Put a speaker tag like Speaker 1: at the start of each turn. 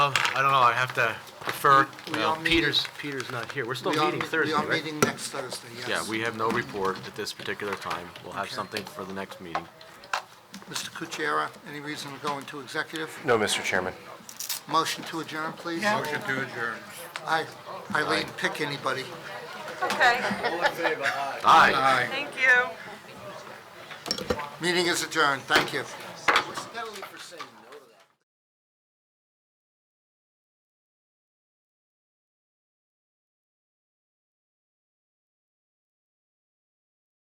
Speaker 1: Uh, I don't know, I have to defer.
Speaker 2: We- we
Speaker 1: Well,
Speaker 2: are meeting-
Speaker 1: Peter's, Peter's not here. We're still
Speaker 2: We are
Speaker 1: meeting
Speaker 2: me-
Speaker 1: Thursday,
Speaker 2: We are
Speaker 1: right?
Speaker 2: meeting next Thursday, yes.
Speaker 1: Yeah, we have no report at this particular time. We'll have
Speaker 2: Okay.
Speaker 1: something for the next meeting.
Speaker 2: Mr. Kuchera, any reason to go into executive?
Speaker 3: No, Mr. Chairman.
Speaker 2: Motion to adjourn, please?
Speaker 4: Motion to adjourn.
Speaker 2: I, Eileen, pick anybody.
Speaker 5: Okay,
Speaker 1: Aye.
Speaker 4: Aye.
Speaker 5: thank you.
Speaker 2: Meeting is adjourned, thank you.